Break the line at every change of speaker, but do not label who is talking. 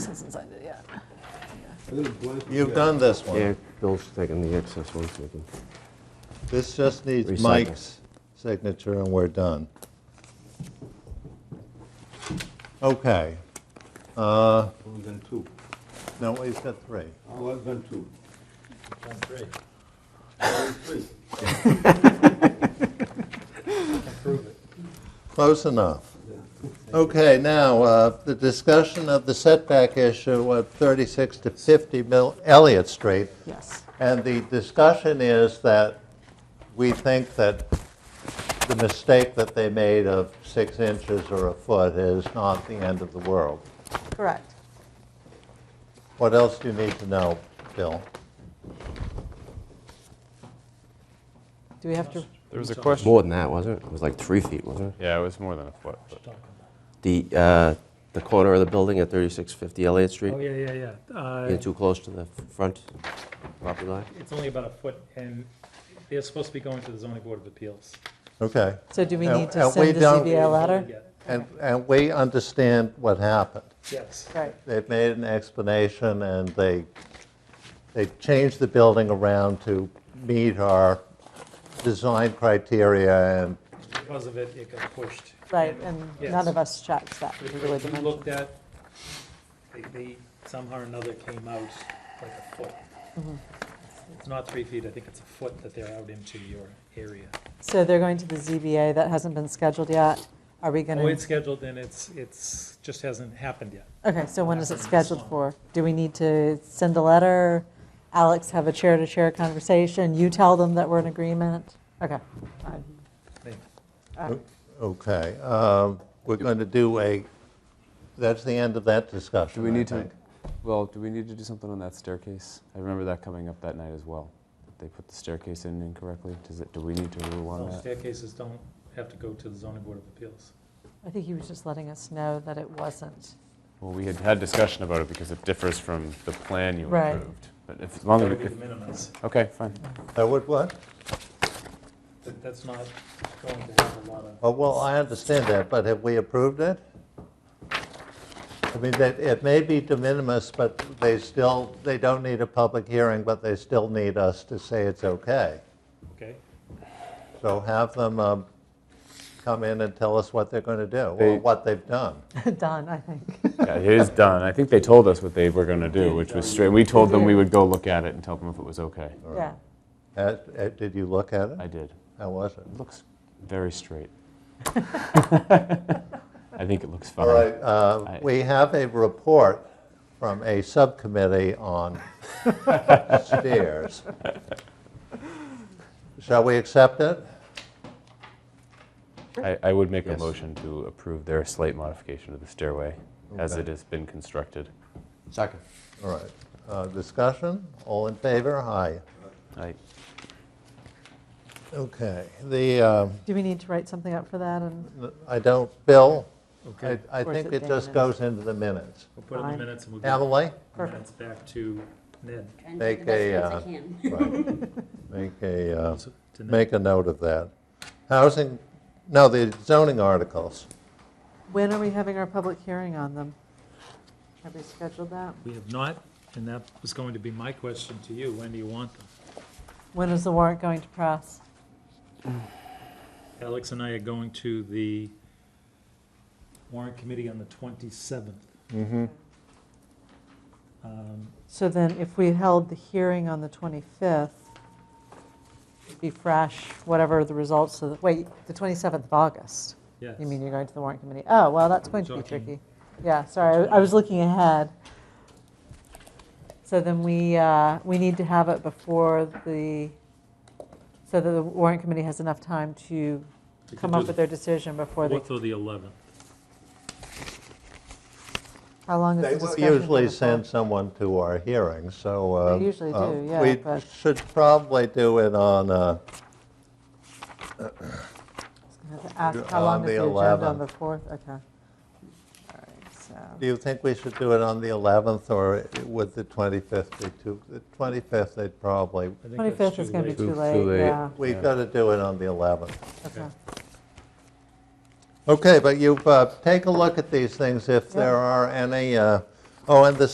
since I did, yeah.
You've done this
Yeah,
one.
Bill's taking the excess one, so he can-
This just needs
Recycle.
Mike's signature, and we're done. Okay. Uh,
Only done two.
No, he's got three.
Oh, I've done two. three.
Close enough. Okay, now, uh, the discussion of the setback issue at 36 to 50 Mill Elliott Street.
Yes.
And the discussion is that we think that the mistake that they made of six inches or a foot is not the end of the world.
Correct.
What else do you need to know, Bill?
Do we have to,
There was a question.
more than that, wasn't it? It was like three feet, wasn't it?
Yeah, it was more than a foot. but-
The, uh, the corner of the building at 3650 Elliott Street?
Oh, yeah, yeah, yeah. Uh,
You're too close to the front property line?
It's only about a foot, and they're supposed to be going to the zoning board of appeals.
Okay.
so do we
And-
need to
and we
send the
don't-
ZBA letter?
Yeah,
And, and we understand what happened.
Yes.
Right,
They've made an explanation, and they, they changed the building around to meet our design criteria, and
Because of it, it got pushed.
right, and none
Yes.
of us checked that particular
If you
dimension.
looked at, they- they somehow or another came out like a foot.
Mm-hmm.
It's not three feet, I think it's a foot that they're out into your area.
So they're going to the ZBA, that hasn't been scheduled yet. Are we going
Oh, it's
to,
scheduled, and it's, it's, just hasn't happened yet.
okay, so when is it
happening this
scheduled
month.
for? Do we need to send a letter? Alex, have a chair-to-chair conversation? You tell them that we're in agreement? Okay, fine. Uh,
They-
okay. um, We're going to do a, that's the end of that
Do
discussion,
we
I
need to,
think.
well, do we need to do something on that staircase? I remember that coming up that night as well. They put the staircase in incorrectly. Does it, do we need to rule on
Those
that?
Staircases don't have to go to the zoning board of appeals.
I think he was just letting us know that it wasn't.
Well, we had had discussion about it because it differs from the plan you
Right.
approved. But if, as long as,
That would
we
be the
could-
minimums.
okay, fine.
That would what?
That- That's not going to have a lot of.
Oh, well, I understand that, but have we approved it? I mean, that, it may be de minimis, but they still, they don't need a public hearing, but they still need us to say it's okay.
Okay,
So have them um, come in and tell us what they're going to do, or
They-
what they've done.
Done, I think.
Yeah, it is done. I think they told us what they were going to do, which was straight. We told them we would go look at it and tell them if it was okay.
Yeah.
Uh, uh, Did you look at
I
it?
did.
How was it?
It looks very straight. I think it looks fine.
All right, uh,
I-
we have a report from a subcommittee on stairs. Shall we accept it?
I, I would make a
Yes.
motion to approve their slight modification of the stairway as
Okay.
it has been constructed.
Second.
All right, Uh, discussion, all in favor, aye.
I,
Okay, the, um,
Do we need to write something up for that? And
I don't, Bill, I I
Or is
think
it
it just
Dana?
goes into the minutes.
we'll put in
Fine.
the minutes and we'll get
Emily?
the minutes back to Ned.
Trying to
Make
take the best
a,
notes I
uh,
can.
Right. Make a, uh,
So, to Ned.
make a note of that. Housing, no, the zoning articles.
when are we having our public hearing on them? Have we scheduled that?
We have not, and that was going to be my question to you, when do you want them?
When is the warrant going to press?
Alex and I are going to the warrant committee on the 27th.
Hmm.
Mm-hmm.
Um,
So then if we held the hearing on the 25th, it'd be fresh, whatever the results of, the wait, the 27th of August?
Yes.
You mean you're going to the warrant committee? Oh, well, that's going to be
Talking-
tricky. Yeah, sorry, I I was looking ahead. So then we, uh, we need to have it before the, so that the warrant committee has enough time to
We can
come
do
up
the
with their decision before they,
4th or the 11th.
how long
They
is the
will
discussion?
usually
gonna fall?
send someone to our hearings, so. uh,
They usually do,
uh,
yeah,
We
but-
should probably do it on, uh,
Ask how long
On
is
the
the agenda
11th.
on the 4th? Okay. All right, so.
do you think we should do it on the 11th or would the 25th be too? The 25th, they'd probably,
I think that's
25th is going to be
late.
too
Too-
late,
too late.
yeah.
we've got to do it on the 11th.
okay.
Okay, but you, uh, take a look at these things if there are any, uh, oh, and the